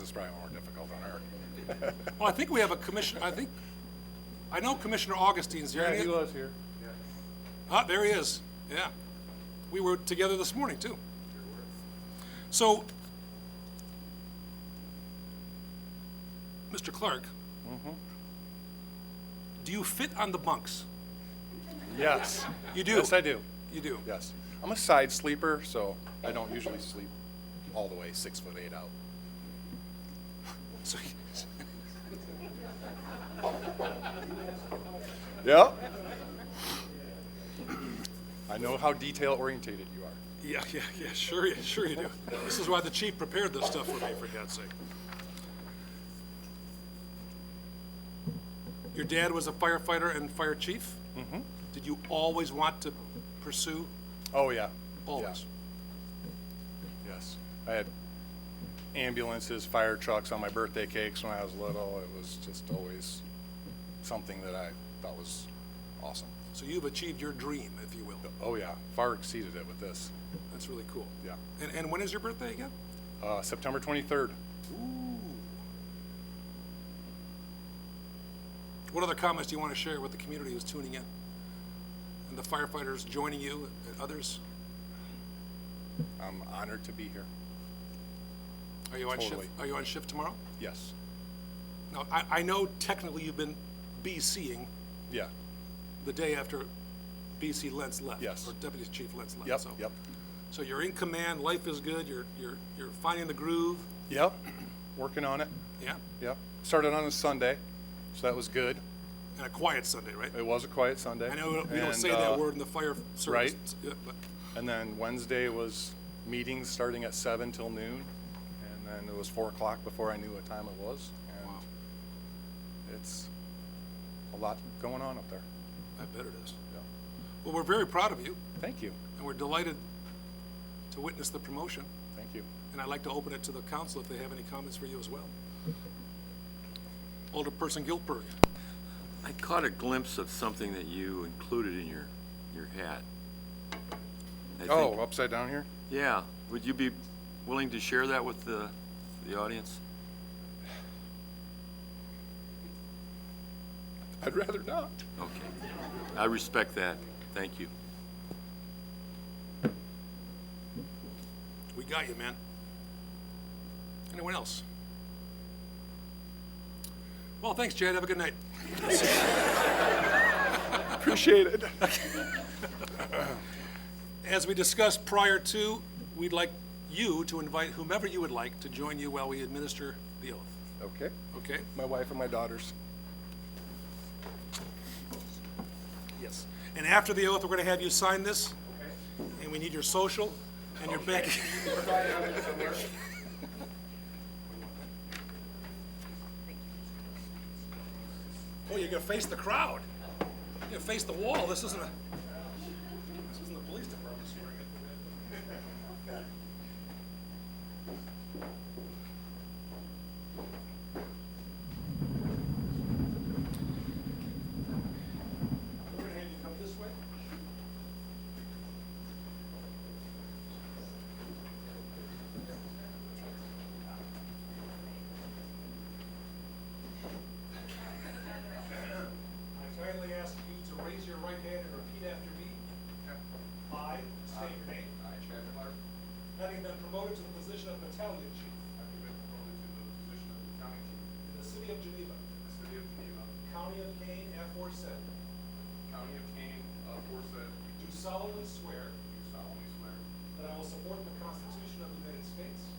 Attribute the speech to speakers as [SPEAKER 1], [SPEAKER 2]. [SPEAKER 1] It's probably more difficult on her.
[SPEAKER 2] Well, I think we have a commission, I think, I know Commissioner Augustine's here.
[SPEAKER 3] Yeah, he was here.
[SPEAKER 2] Ah, there he is, yeah. We were together this morning, too. So, Mr. Clark,
[SPEAKER 3] Mm-hmm.
[SPEAKER 2] do you fit on the bunks?
[SPEAKER 3] Yes.
[SPEAKER 2] You do?
[SPEAKER 3] Yes, I do.
[SPEAKER 2] You do?
[SPEAKER 1] Yes. I'm a side sleeper, so I don't usually sleep all the way six foot eight out.
[SPEAKER 2] So,
[SPEAKER 1] Yep. I know how detail orientated you are.
[SPEAKER 2] Yeah, yeah, yeah, sure, you- sure you do. This is why the chief prepared this stuff for me, for God's sake. Your dad was a firefighter and fire chief? Mm-hmm. Did you always want to pursue?
[SPEAKER 1] Oh, yeah.
[SPEAKER 2] Always?
[SPEAKER 1] Yeah. Yes. I had ambulances, fire trucks on my birthday cakes when I was little. It was just always something that I thought was awesome.
[SPEAKER 2] So you've achieved your dream, if you will.
[SPEAKER 1] Oh, yeah. Far exceeded it with this.
[SPEAKER 2] That's really cool.
[SPEAKER 1] Yeah.
[SPEAKER 2] And, and when is your birthday again?
[SPEAKER 1] Uh, September 23rd.
[SPEAKER 2] What other comments do you want to share with the community who's tuning in? And the firefighters joining you and others?
[SPEAKER 1] I'm honored to be here.
[SPEAKER 2] Are you on shift,
[SPEAKER 1] Totally.
[SPEAKER 2] are you on shift tomorrow?
[SPEAKER 1] Yes.
[SPEAKER 2] Now, I, I know technically you've been BCing
[SPEAKER 1] Yeah.
[SPEAKER 2] the day after BC Lentz left.
[SPEAKER 1] Yes.
[SPEAKER 2] Or Deputy Chief Lentz left.
[SPEAKER 1] Yep.
[SPEAKER 2] so-
[SPEAKER 1] Yep.
[SPEAKER 2] So you're in command, life is good, you're, you're, you're finding the groove,
[SPEAKER 1] Yep. Working on it.
[SPEAKER 2] yeah?
[SPEAKER 1] Yep. Started on a Sunday, so that was good.
[SPEAKER 2] And a quiet Sunday, right?
[SPEAKER 1] It was a quiet Sunday.
[SPEAKER 2] I know we don't
[SPEAKER 1] Uh, And,
[SPEAKER 2] say that
[SPEAKER 1] uh,
[SPEAKER 2] word in the fire service.
[SPEAKER 1] right.
[SPEAKER 2] yeah, But
[SPEAKER 1] And then Wednesday was meetings starting at seven till noon, and then it was four o'clock before I knew what time it was. And
[SPEAKER 2] Wow.
[SPEAKER 1] it's a lot going on up there.
[SPEAKER 2] I bet it is.
[SPEAKER 1] Yeah.
[SPEAKER 2] Well, we're very proud of you,
[SPEAKER 1] Thank you.
[SPEAKER 2] and we're delighted to witness the promotion.
[SPEAKER 1] Thank you.
[SPEAKER 2] And I'd like to open it to the council if they have any comments for you as well. Alderperson Gilbert,
[SPEAKER 4] I caught a glimpse of something that you included in your, your hat. I think-
[SPEAKER 1] Oh, upside down here?
[SPEAKER 4] Yeah, would you be willing to share that with the, the audience?
[SPEAKER 1] I'd rather not.
[SPEAKER 4] Okay, I respect that, thank you.
[SPEAKER 2] we got you, man. Anyone else? Well, thanks, Chad, have a good night.
[SPEAKER 1] Appreciate it.
[SPEAKER 2] As we discussed prior to, we'd like you to invite whomever you would like to join you while we administer the oath,
[SPEAKER 1] Okay.
[SPEAKER 2] okay?
[SPEAKER 1] My wife and my daughters.
[SPEAKER 2] Yes. And after the oath, we're going to have you sign this. And we need your social and your bank. Oh, you're going to face the crowd. You're going to face the wall. This isn't a, this isn't the police department swearing it. We're going to have you come this way. I kindly ask you to raise your right hand and repeat after me. I state your name.
[SPEAKER 5] I, Chad Clark,
[SPEAKER 2] Having
[SPEAKER 5] having
[SPEAKER 2] been promoted to the position of battalion chief
[SPEAKER 5] been promoted to the position of battalion chief
[SPEAKER 2] in the city of Geneva,
[SPEAKER 5] in the city of Geneva,
[SPEAKER 2] county of Kane, aforesaid,
[SPEAKER 5] county of Kane, aforesaid,
[SPEAKER 2] do solemnly swear
[SPEAKER 5] do solemnly swear
[SPEAKER 2] that I will support the Constitution of the United States